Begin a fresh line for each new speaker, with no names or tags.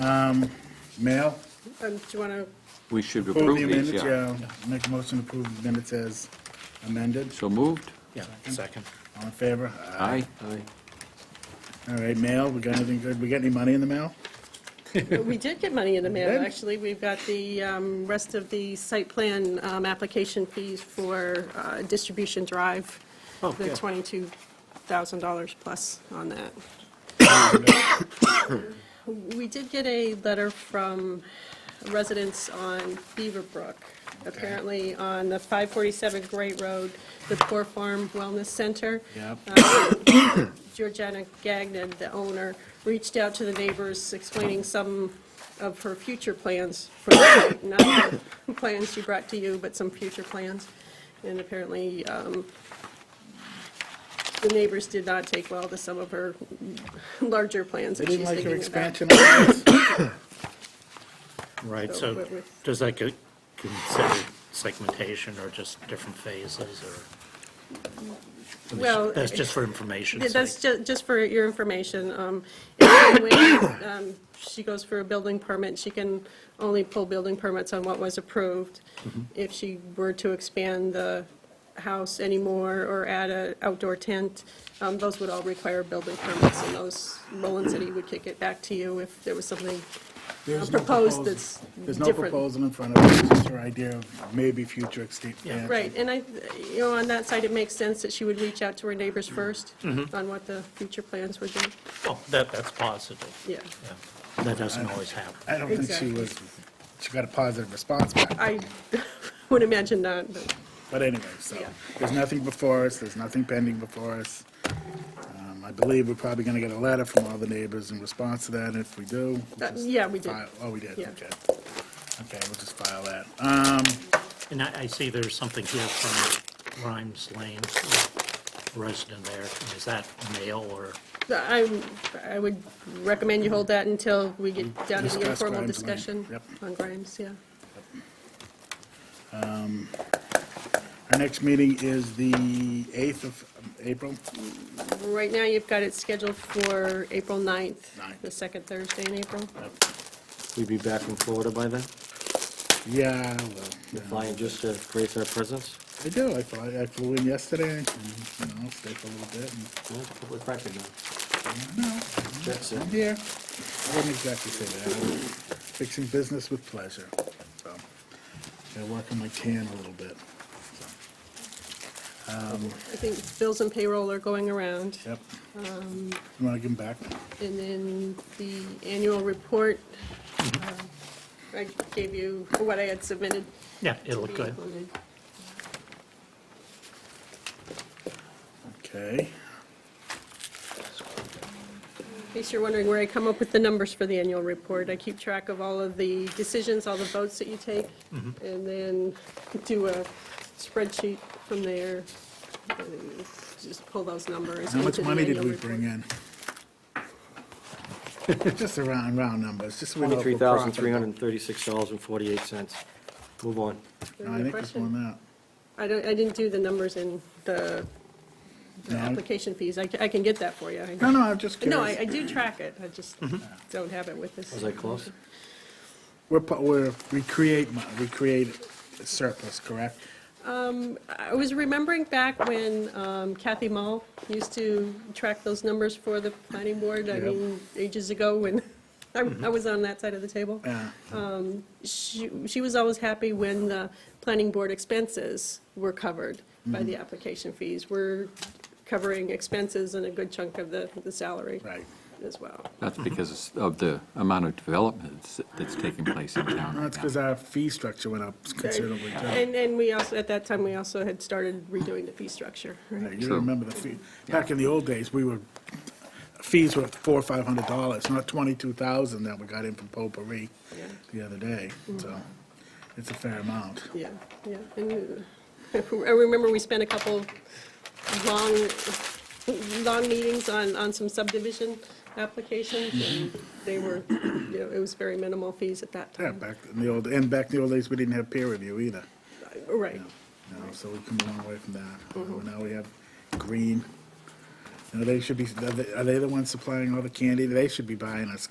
Um, Mail,
Um, Do you want to,
We should
approve
approve
the
these,
amendments,
yeah.
yeah. Make a motion to approve the minutes as amended.
So moved?
Yeah, second.
All in favor?
Aye.
All right, mail, we got anything good? We got any money in the mail?
we did get money in the mail,
Good.
actually. We've got the um, rest of the site plan um, application fees for uh, distribution drive, the
Oh, good.
$22,000 plus on that. We did get a letter from residents on Beaverbrook. Apparently, on the 547 Great Road, the Poor Farm Wellness Center,
Yep.
Uh, Georgiana Gagnon, the owner, reached out to the neighbors explaining some of her future plans for the site, not the plans she brought to you, but some future plans. And apparently, um, the neighbors did not take well to some of her larger plans
They
that she's
didn't
thinking
like
about.
your expansion on this?
Right,
So
so
what with-
does that get considered segmentation or just different phases or?
Well,
That's just for information
Yeah, That's
sake.
ju- just for your information. um, and When um, she goes for a building permit, she can only pull building permits on what was approved. If she were to expand the house anymore or add an outdoor tent, um, those would all require building permits, and those, Roland City would kick it back to you if there was something
There's no
proposed
proposal.
that's
There's no
different.
proposal in front of us, it's just her idea of maybe future expansion.
Right, and I, you know, on that side, it makes sense that she would reach out to her neighbors first on what the future plans would be,
Oh, that, that's positive.
yeah.
Yeah. That doesn't always happen.
I don't think she
Exactly.
was, she got a positive response back.
I would imagine not, but.
But anyway, so,
Yeah.
there's nothing before us, there's nothing pending before us. Um, I believe we're probably gonna get a letter from all the neighbors in response to that, and if we do. we'll
That-
just
Uh, yeah, we did.
file- Oh, we did,
Yeah.
okay. Okay, we'll just file that. Um,
And I, I see there's something here from Rhymes Lane, a resident there. Is that mail or?
I, I would recommend you hold that until we get down to the
Mm-hmm. Discuss
informal
Grimes Lane.
discussion
Yep.
on Grimes, yeah.
our next meeting is the eighth of um, April.
Right now, you've got it scheduled for April 9th,
Ninth.
the second Thursday in April.
We'd be back in Florida by then,
Yeah, well, yeah.
flying just to grace our presence.
I do, I flew, I flew in yesterday, and, you know, stayed for a little bit, and,
Yeah, Public record now.
no,
That's it.
I'm here. I wouldn't exactly say that, I was fixing business with pleasure, so, gotta work on my tan a little bit.
I think bills and payroll are going around.
Yep.
Um,
You wanna give them back?
And then the annual report, uh,
Mm-hmm.
I gave you what I had submitted.
Yeah,
to
it'll
be
look good.
included.
Okay,
In case you're wondering where I come up with the numbers for the annual report, I keep track of all of the decisions, all the votes that you take,
Mm-hmm.
and then do a spreadsheet from there, and just pull those numbers.
how much
into the
money did
annual
we
report.
bring in? Just around, round numbers, just so we know if we're
Twenty-three thousand, three hundred
profitable.
and thirty-six dollars and forty-eight cents. Move on.
No, I think this
Question.
one out.
I don't, I didn't do the numbers in the the
No.
application fees, I ca- I can get that for you. I-
No, no, I'm just
No, I I
curious. Mm-hmm.
do track it, I just don't have it with this.
Was I close?
We're, pu- we're, we create, mon- we create surplus, correct?
I was remembering back when um, Kathy Mall used to track those numbers for the planning board, I
Yep.
mean, ages ago when I I was on that side of the table. Um,
Yeah,
She she was always happy when the planning board expenses were covered by
Mm-hmm.
the application fees. We're covering expenses and a good chunk of the the salary
right.
as well.
That's because of the amount of development that's- that's taking place in town
That's
right
because
now.
our fee structure went up considerably. too.
And and we also, at that time, we also had started redoing the fee structure, right?
Yeah, You
True.
remember the fee, back in the old days, we were, fees were four or five hundred dollars, not twenty-two thousand that we got in from potpourri
Yeah.
the other day, so it's a fair amount.
Yeah, yeah. And uh, I remember we spent a couple long, long meetings on, on some subdivision applications, and they were, you know, it was very minimal fees at that
Yeah,
time.
back in the old, and back in the old days, we didn't have peer review either,
Right.
you know, so we come a long way from that. Uh, Now we have Green, you know, they should be, are they- are they the ones supplying all the candy? They should be buying us